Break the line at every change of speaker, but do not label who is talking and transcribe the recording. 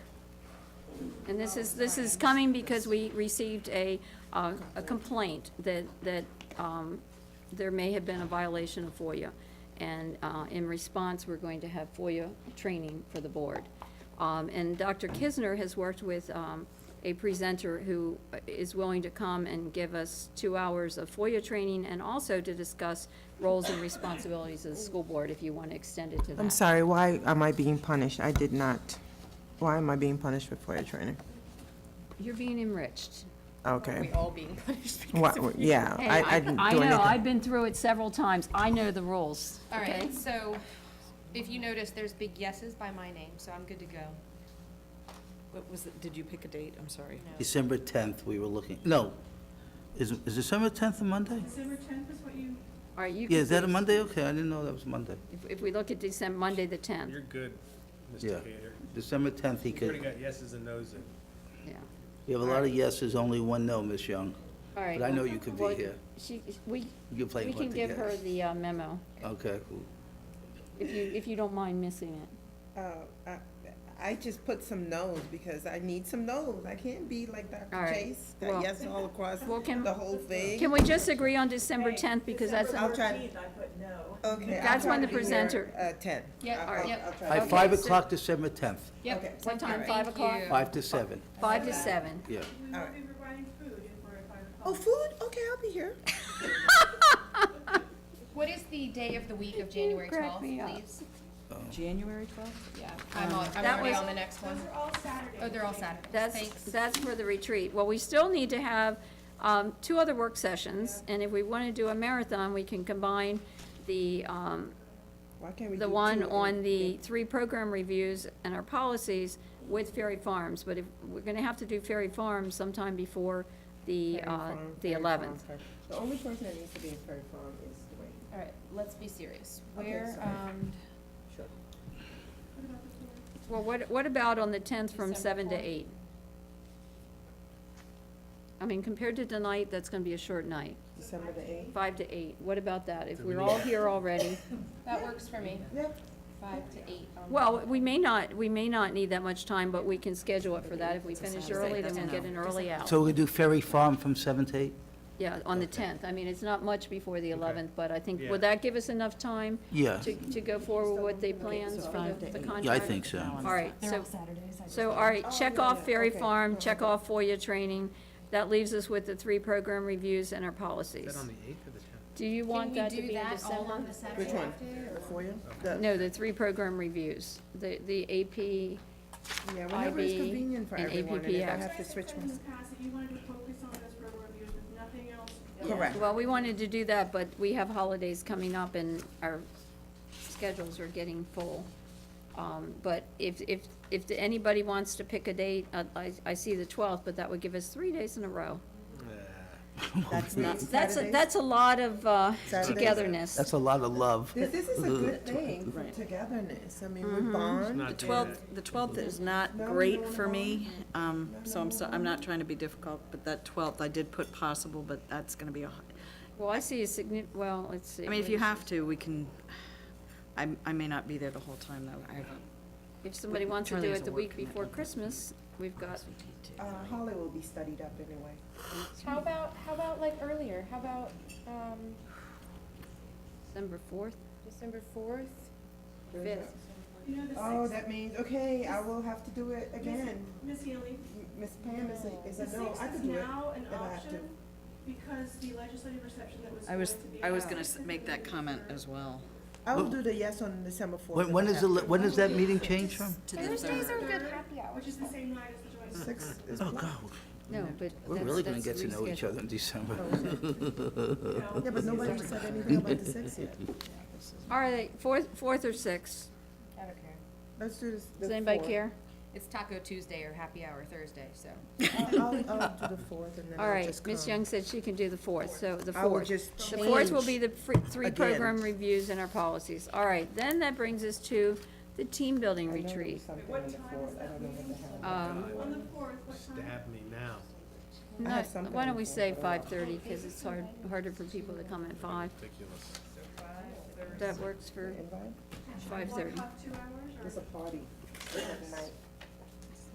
And this is, this is coming because we received a, uh, a complaint that, that um, there may have been a violation of FOIA. And uh, in response, we're going to have FOIA training for the board. Um, And Dr. Kisner has worked with um, a presenter who is willing to come and give us two hours of FOIA training and also to discuss roles and responsibilities of the school board, if you want to extend it to that.
I'm sorry, why am I being punished? I did not, why am I being punished for FOIA training?
You're being enriched.
Okay.
We all being punished because of
What, yeah,
Hey,
I, I didn't do
I
anything.
know, I've been through it several times. I know the rules,
All
okay?
right, so if you notice, there's big yeses by my name, so I'm good to go.
What was it, did you pick a date? I'm sorry.
December 10th, we were looking, no, is, is December 10th a Monday?
December tenth is what you,
All right, you
Yeah, is that a
can,
Monday? Okay, I didn't know that was Monday.
if- if we look at December, Monday, the 10th,
You're good,
Yeah.
Mr. Cater.
December 10th, he
You already
could,
got yeses and noses.
yeah.
you have a lot of yeses, only one no, Miss Young.
All right.
But I know you could be
well,
here.
She, we,
You can play
we
one
can give her
together.
the uh, memo,
Okay, cool.
if you, if you don't mind missing it.
Oh, I- I just put some no's because I need some no's. I can't be like
All
Dr.
right.
Chase, that
Well-
yes all across
Well, can-
the whole thing.
Can we just agree on December 10th, because that's,
I'll
December
try-
fourteenth, I put no.
Okay. I'll
That's
try
when
to
the
be here,
presenter-
Uh, ten.
Yeah,
I'll-
all right.
I'll-
Yep.
I'll try to
At
be
five-
5
so-
o'clock, December 10th,
Okay.
what time,
Thank
5 o'clock?
you.
5 to 7,
5 to 7.
yeah.
We
All
will
right.
be providing food if we're at five o'clock.
Oh, food? Okay, I'll be here.
What is the day of the week of January
crack
twelfth,
me up.
please?
Um,
January 12th?
Yeah, I'm al- I'm
that
already
was-
on the next one.
Those are all Saturdays.
Oh, they're all Saturdays,
That's,
thanks.
that's for the retreat. Well, we still need to have um, two other work sessions, and if we want to do a marathon, we can combine the um,
Why can't we do
the
two
one
of them?
on the three program reviews and our policies with Ferry Farms, but if, we're gonna have to do Ferry Farms sometime before the,
Ferry
uh,
Farm,
the
Ferry Farm,
eleventh.
Ferry- The only person that needs to be in Ferry Farm is Dwayne.
All right, let's be serious.
Okay,
Where,
sorry.
um,
Sure.
Well, what, what about on the tenth from
December
seven to
4th?
eight? I mean, compared to tonight, that's gonna be a short night,
December the eighth.
five to eight, what about that? If
Do we
we're
need-
all here already,
that works for me,
Yeah,
five to eight. Um, on the-
well, we may not, we may not need that much time, but we can schedule it for that. If we finish
Saturday,
early, then we'll
that's-
get an early out.
So we do Ferry Farm from 7 to 8?
Yeah, on the tenth. I mean, it's not much before the eleventh, but I think,
Yeah.
will that give us enough time
Yeah,
to, to go forward with the plans for the- the contract?
yeah, I think so.
All right, so,
Saturdays, I
so, all right, check off Ferry
okay.
Farm, check off FOIA training. That leaves us with the three program reviews and our
Is
policies.
that on the 8th or the 10th?
Do you want that to be in
Can we do that all
December?
on the Saturday?
which one?
after,
The
or-
foyer? The-
No, the three program reviews, the, the AP,
Yeah, whenever it's
IB
convenient for
and
everyone, and if I
APPX.
have to switch
You guys
ones.
have said in the past that you wanted to focus on those program reviews with nothing else.
Correct.
well, we wanted to do that, but we have holidays coming up and our schedules are getting full. Um, but if, if, if anybody wants to pick a date, uh, I, I see the twelfth, but that would give us three days in a row.
That's
Now,
not
That's, a
Saturdays?
that's a lot of, uh,
Saturdays.
togetherness.
That's a lot of love.
This, this is a good thing for togetherness. I mean,
Mm-hmm.
we bond.
Not
The
doing
12th,
that.
the 12th is not
No, no,
great
no,
for
no.
me, um, so I'm, so, I'm not trying to be difficult, but that 12th, I did put possible, but that's gonna be a,
Well, I see a signi, well, let's see.
I mean, if you
wait.
have to, we can, I, I may not be there the whole time, though. I have a-
If somebody wants to do
Charlie has
it
a
the
work
week before
commitment.
Christmas, we've got,
Uh, Holly will be studied up anyway.
How about, how about like earlier, how about, um,
December fourth,
December fourth?
fifth.
You know, the
Oh,
sixth,
that means, okay, I will have to do it again.
Miss Healy,
Miss Pam is a,
the
is
sixth
a no, I
is
could do it.
now an
if I have to.
option because the legislative reception that was
I
going
was,
to be.
I was
on
gonna
the
s- make that comment as well.
I will do the yes on December fourth.
When, when is the, li- when does that meeting change from?
To the third.
are good happy hours.
Which is the same night as the joint. session.
Six is
Oh,
blocked.
No, but
We're
that's-
really gonna
that's
get to know each
rescheduled.
other in December.
No.
Yeah, but nobody said anything about the six yet.
All right, fourth, fourth or sixth?
I don't care.
Let's do this. the
Does anybody
fourth.
care?
It's Taco Tuesday or Happy Hour Thursday, so.
I'll, I'll, I'll do the fourth and then
All
I'll
right,
just come.
Ms. Young said she can do the fourth, so the
I will
fourth.
just
The fourth will be
change
the free- three
again.
program reviews and our policies. All right, then that brings us to the team building
I know there was
retreat.
something on the fourth. I don't know what the hell.
Um,
On the fourth, what time?
Stab me now.
I
No,
have something
why don't we
before,
say
but I
five thirty, because it's hard, harder for people to come at five.
Ridiculous.
That works for
Invite?
five thirty.
Two hours or?
It's a party. It's at night.